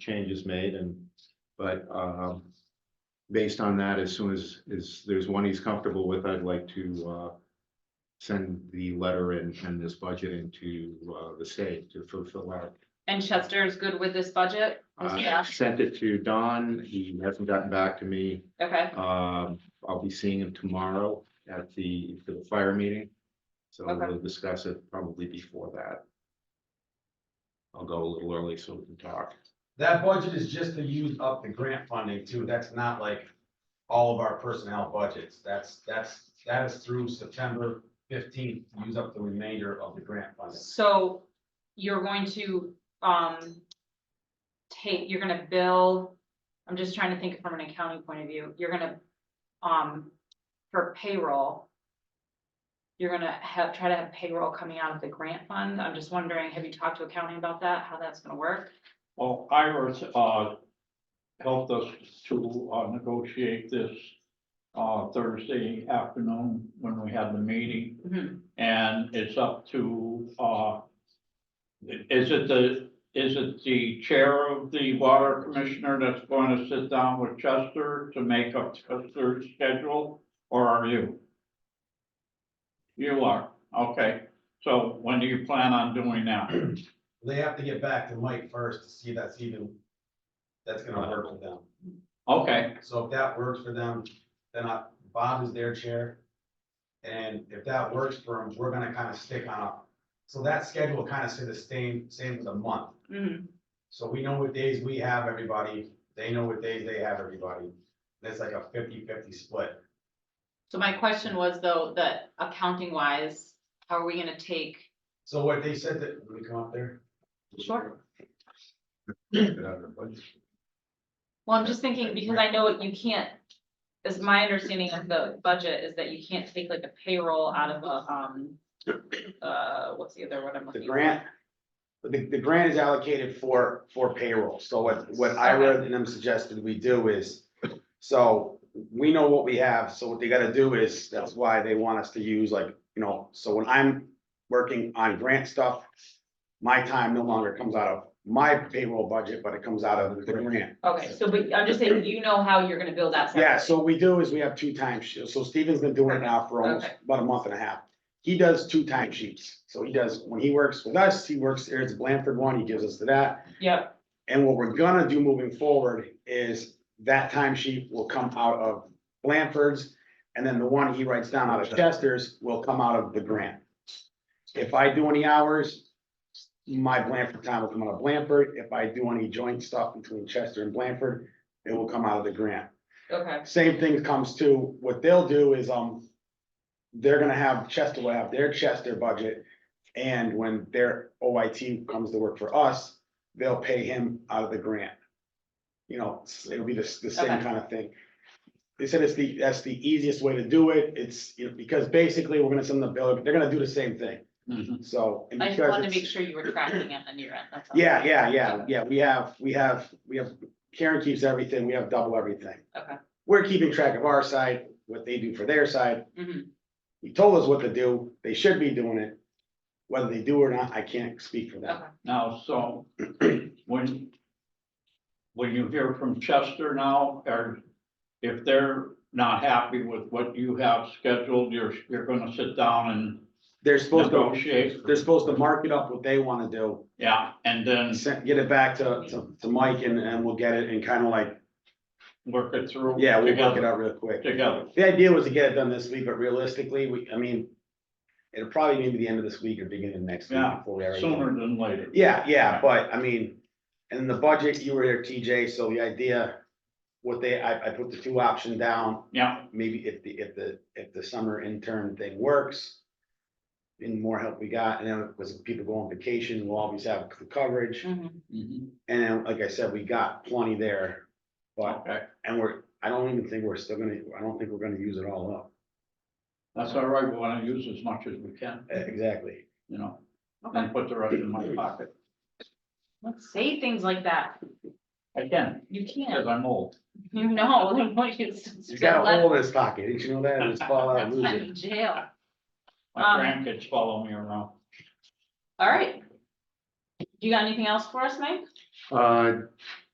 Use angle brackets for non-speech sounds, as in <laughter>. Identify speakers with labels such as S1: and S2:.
S1: changes made and, but, um. Based on that, as soon as, is, there's one he's comfortable with, I'd like to, uh. Send the letter and, and this budget into, uh, the state to fulfill that.
S2: And Chester is good with this budget?
S1: Uh,
S2: Yeah.
S1: sent it to Don, he hasn't gotten back to me,
S2: Okay,
S1: um, I'll be seeing him tomorrow at the, for the fire meeting. So
S2: Okay.
S1: we'll discuss it probably before that. I'll go a little early so we can talk.
S3: That budget is just to use up the grant funding too. That's not like all of our personnel budgets. That's, that's, that is through September fifteenth, use up the remainder of the grant funding.
S2: so you're going to, um, take, you're gonna bill, I'm just trying to think from an accounting point of view, you're gonna, um, for payroll, you're gonna have, try to have payroll coming out of the grant fund. I'm just wondering, have you talked to accounting about that, how that's gonna work?
S4: Well, Iris, uh, helped us to, uh, negotiate this, uh, Thursday afternoon when we had the meeting,
S2: Mhm.
S4: and it's up to, uh, is it the, is it the chair of the water commissioner that's going to sit down with Chester to make up Chester's schedule, or are you? You are, okay, so when do you plan on doing that?
S3: They have to get back to Mike first to see that's even, that's gonna work with them.
S4: Okay.
S3: So if that works for them, then I, Bob is their chair. And if that works for them, we're gonna kind of stick on a, so that schedule kind of stay the same, same as a month.
S2: Mhm.
S3: So we know what days we have everybody, they know what days they have everybody, that's like a 50-50 split.
S2: So my question was though, that accounting wise, how are we gonna take
S3: So what they said that, when we come up there,
S2: Sure.
S1: Get out of the budget.
S2: Well, I'm just thinking, because I know you can't, is my understanding of the budget is that you can't take like a payroll out of a, um, uh, what's the other one I'm
S5: The
S2: looking? for?
S5: grant, the, the grant is allocated for, for payroll, so what, what Ira and them suggested we do is, so we know what we have, so what they gotta do is, that's why they want us to use like, you know, so when I'm working on grant stuff, my time no longer comes out of my payroll budget, but it comes out of the grant.
S2: Okay, so but I'm just saying, you know how you're gonna build that.
S5: Yeah,
S2: separately.
S5: so what we do is we have two timesheets, so Steven's been doing it now for almost
S2: Okay.
S5: about a month and a half. He does two timesheets, so he does, when he works with us, he works, there's a Blanford one, he gives us to that.
S2: Yep,
S5: And what we're gonna do moving forward is that timesheet will come out of Blanford's. And then the one he writes down out of Chester's will come out of the grant. If I do any hours, my Blanford time will come out of Blanford. If I do any joint stuff between Chester and Blanford, it will come out of the grant.
S2: okay,
S5: Same thing comes to, what they'll do is, um, they're gonna have, Chester will have their Chester budget. And when their OIT comes to work for us, they'll pay him out of the grant. You know, s- it'll be the, s- the same
S2: Okay.
S5: kind of thing. They said it's the, that's the easiest way to do it. It's, you know, because basically we're gonna send the bill, they're gonna do the same thing,
S4: Mhm.
S5: so. and
S2: I just
S5: because
S2: wanted to
S5: it's-
S2: make sure you were tracking it on your end, that's all.
S5: Yeah, yeah, yeah, yeah, we have, we have, we have, Karen keeps everything, we have double everything.
S2: Okay.
S5: We're keeping track of our side, what they do for their side,
S2: Mhm.
S5: he told us what to do, they should be doing it. Whether they do or not, I can't speak for them.
S2: okay,
S4: Now, so when, when you hear from Chester now, or if they're not happy with what you have scheduled, you're, you're gonna sit down
S5: They're
S4: and
S5: supposed to,
S4: negotiate?
S5: they're supposed to mark it up what they wanna do,
S4: Yeah, and then
S5: and send, get it back to, to, to Mike and, and we'll get it and kinda like,
S4: work it through.
S5: yeah, we'll work it
S4: together-
S5: out real quick.
S4: Together,
S5: The idea was to get it done this week, but realistically, we, I mean, it'll probably be the end of this week or beginning of next week.
S4: Yeah,
S5: before we already-
S4: sooner than later.
S5: Yeah, yeah, but I mean, and the budget, you were here, TJ, so the idea, what they, I, I put the two option down,
S4: Yeah,
S5: maybe if the, if the, if the summer intern thing works. And more help we got, and then because people go on vacation, we'll always have the coverage,
S2: mhm.
S4: mhm,
S5: and then, like I said, we got plenty there. But,
S4: okay,
S5: and we're, I don't even think we're still gonna, I don't think we're gonna use it all up,
S4: that's all right, we wanna use as much as we can,
S5: Eh, exactly.
S4: you know,
S2: okay,
S4: and put the rest in my pocket.
S2: let's say things like that,
S4: I can,
S2: you
S4: because
S2: can't,
S4: I'm old.
S2: you know, <laughs> like, you
S5: He's
S2: still
S5: got a
S2: let
S5: hole in his pocket, didn't you know that, It'll just fall out, and lose
S2: them
S5: it.
S2: in jail,
S4: My
S2: Um,
S4: grandkids follow me around.
S2: all right. You got anything else for us, Mike?
S1: Uh,